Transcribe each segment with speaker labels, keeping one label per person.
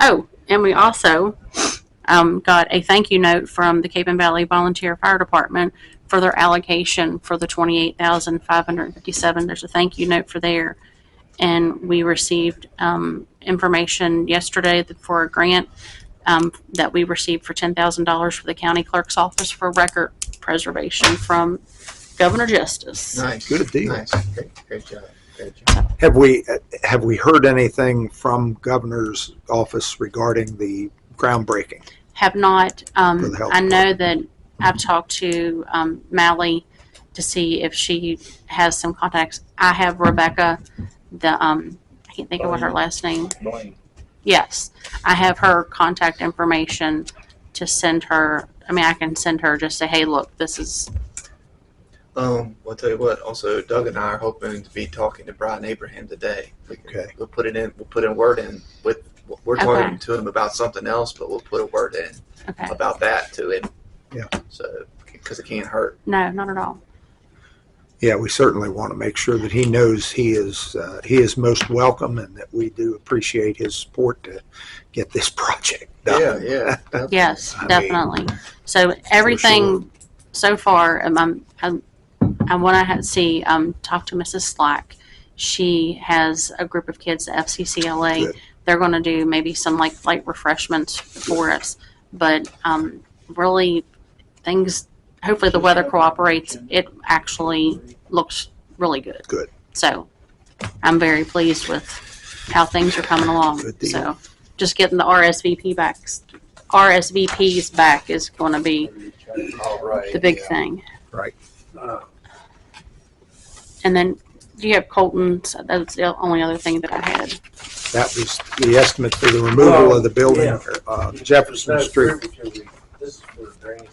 Speaker 1: Oh, and we also um, got a thank you note from the Cape and Valley Volunteer Fire Department for their allocation for the twenty-eight thousand five hundred and fifty-seven. There's a thank you note for there. And we received um, information yesterday that- for a grant um, that we received for ten thousand dollars for the county clerk's office for record preservation from Governor Justice.
Speaker 2: Nice.
Speaker 3: Good deal.
Speaker 2: Nice. Great, great job. Great job.
Speaker 3: Have we, have we heard anything from governor's office regarding the groundbreaking?
Speaker 1: Have not,
Speaker 3: For
Speaker 1: um,
Speaker 3: the health
Speaker 1: I know that I've talked to, um, Mally to see if she has some contacts. I have Rebecca, the, um, I can't think of what her last name,
Speaker 4: Blaine.
Speaker 1: yes. I have her contact information to send her, I mean, I can send her, just say, hey, look, this is,
Speaker 2: Um, I'll tell you what. Also, Doug and I are hoping to be talking to Brian Abraham today. We can,
Speaker 3: Okay.
Speaker 2: We'll put it in. We'll put in word in with. We're
Speaker 1: Okay.
Speaker 2: talking to him about something else, but we'll put a word in
Speaker 1: okay,
Speaker 2: about that to him.
Speaker 3: Yeah.
Speaker 2: So, because it can't hurt.
Speaker 1: no, not at all.
Speaker 3: Yeah, we certainly want to make sure that he knows he is, uh, he is most welcome and that we do appreciate his support to get this project done.
Speaker 2: Yeah, yeah.
Speaker 1: Yes,
Speaker 3: I mean-
Speaker 1: definitely. So everything so far, um, I'm, I'm, I want to ha- see, um, talk to Mrs. Slack. She has a group of kids at FCCLA.
Speaker 3: Good.
Speaker 1: They're going to do maybe some like light refreshments for us. But, um, really things, hopefully the weather cooperates. It actually looks really good.
Speaker 3: Good.
Speaker 1: So I'm very pleased with how things are coming along.
Speaker 3: Good deal.
Speaker 1: So just getting the RSVP backs, RSVPs back is going to be
Speaker 4: All right.
Speaker 1: the big
Speaker 3: yeah.
Speaker 1: thing.
Speaker 3: Right.
Speaker 4: Uh,
Speaker 1: And then do you have Colton's? That's the only other thing that I had.
Speaker 3: That was the estimate for the removal of the building, uh, Jefferson
Speaker 4: no,
Speaker 3: Street.
Speaker 4: Fruitview, This is for drainage.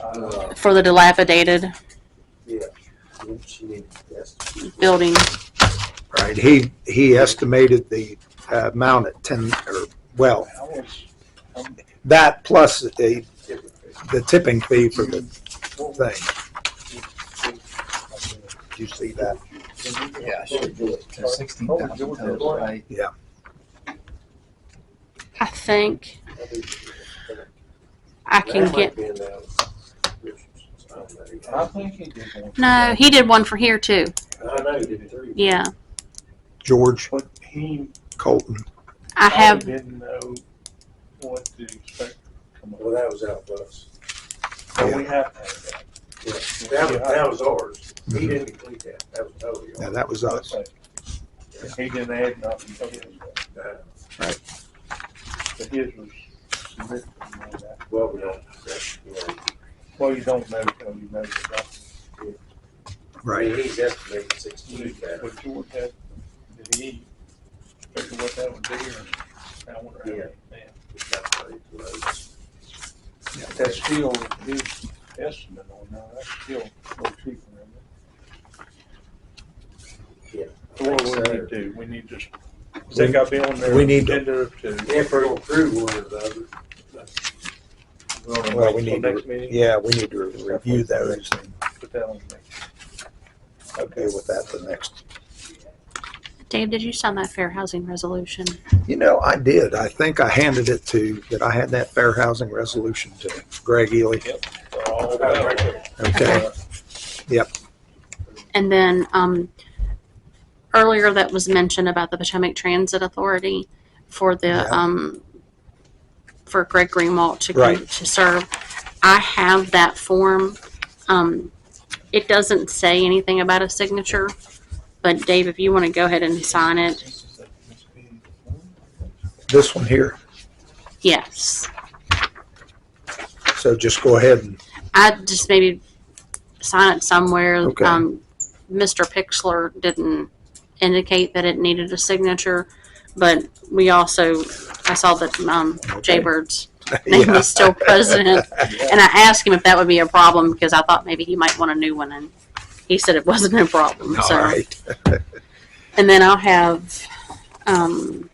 Speaker 4: Uh,
Speaker 1: For the dilapidated
Speaker 4: yeah, she needed this.
Speaker 1: building,
Speaker 3: Right, he, he estimated the uh, amount at ten, or, well,
Speaker 4: How much? how much
Speaker 3: that plus the,
Speaker 4: did it cost?
Speaker 3: the tipping fee for the
Speaker 4: What was
Speaker 3: thing. Did you see that?
Speaker 4: it?
Speaker 2: Yeah, I should do it.
Speaker 4: Oh,
Speaker 2: Sixteen
Speaker 4: you were
Speaker 2: thousand
Speaker 4: doing
Speaker 2: tons,
Speaker 4: it.
Speaker 2: right?
Speaker 1: I think I can
Speaker 4: That might
Speaker 1: get.
Speaker 4: be in the descriptions. I don't know.
Speaker 5: I think he did one.
Speaker 1: No, he did one for here too.
Speaker 4: I know you did three.
Speaker 1: Yeah.
Speaker 3: George
Speaker 5: But he,
Speaker 3: Colton.
Speaker 1: I
Speaker 5: Oh,
Speaker 1: have,
Speaker 5: didn't know what to expect from
Speaker 4: Well,
Speaker 5: us.
Speaker 4: that was out of us.
Speaker 5: So we have to have that.
Speaker 4: That was, that was ours. He didn't complete that. That was totally
Speaker 3: Now,
Speaker 4: ours.
Speaker 3: Mm-hmm. that was us.
Speaker 5: He didn't add nothing to his,
Speaker 4: Uh,
Speaker 5: but his was significant more than that.
Speaker 4: Well, we don't, that's, you know,
Speaker 5: Well, you don't know till you know the doctor.
Speaker 4: I mean,
Speaker 3: Right.
Speaker 4: he's estimated sixteen thousand.
Speaker 5: But George had, did he figure what that would be or? I wonder how
Speaker 4: Yeah.
Speaker 5: that- But That's still his estimate on now, that's still no cheaper than it. So what we need to do, we need to, they got to be on there.
Speaker 3: We need to-
Speaker 4: If we're gonna prove one or the other,
Speaker 3: Well, we need to-
Speaker 5: Next meeting.
Speaker 3: Yeah, we need to review those and
Speaker 5: Put that on the next. Okay.
Speaker 3: deal with that the next.
Speaker 1: Dave, did you sign that fair housing resolution?
Speaker 3: You know, I did. I think I handed it to, that I had that fair housing resolution to Greg Ely.
Speaker 5: All
Speaker 4: Right,
Speaker 5: about
Speaker 4: right
Speaker 5: it.
Speaker 4: there.
Speaker 3: Okay.
Speaker 1: And then um, earlier that was mentioned about the Potomac Transit Authority for the
Speaker 3: Yeah.
Speaker 1: um, for Greg Greenwald to
Speaker 3: Right.
Speaker 1: to serve. I have that form. Um, it doesn't say anything about a signature, but Dave, if you want to go ahead and sign it,
Speaker 3: This one here.
Speaker 1: yes,
Speaker 3: So just go ahead and,
Speaker 1: I just maybe sign it somewhere.
Speaker 3: Okay.
Speaker 1: Um, Mr. Pixler didn't indicate that it needed a signature, but we also I saw that um,
Speaker 3: Okay.
Speaker 1: Jaybirds name
Speaker 3: yeah,
Speaker 1: was still president. And I asked him if that would be a problem because I thought maybe he might want a new one, and he said it wasn't a problem.
Speaker 3: all
Speaker 1: so,
Speaker 3: right.
Speaker 1: and then I'll have um,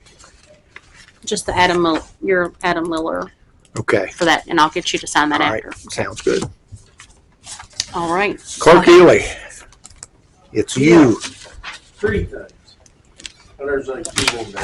Speaker 1: just the Adam Mil- your Adam Miller
Speaker 3: Okay,
Speaker 1: for that, and I'll get you to sign that
Speaker 3: All right.
Speaker 1: after.
Speaker 3: sounds good.
Speaker 1: All right,
Speaker 3: Clark Ely, it's you.
Speaker 4: Three things. And there's like two more.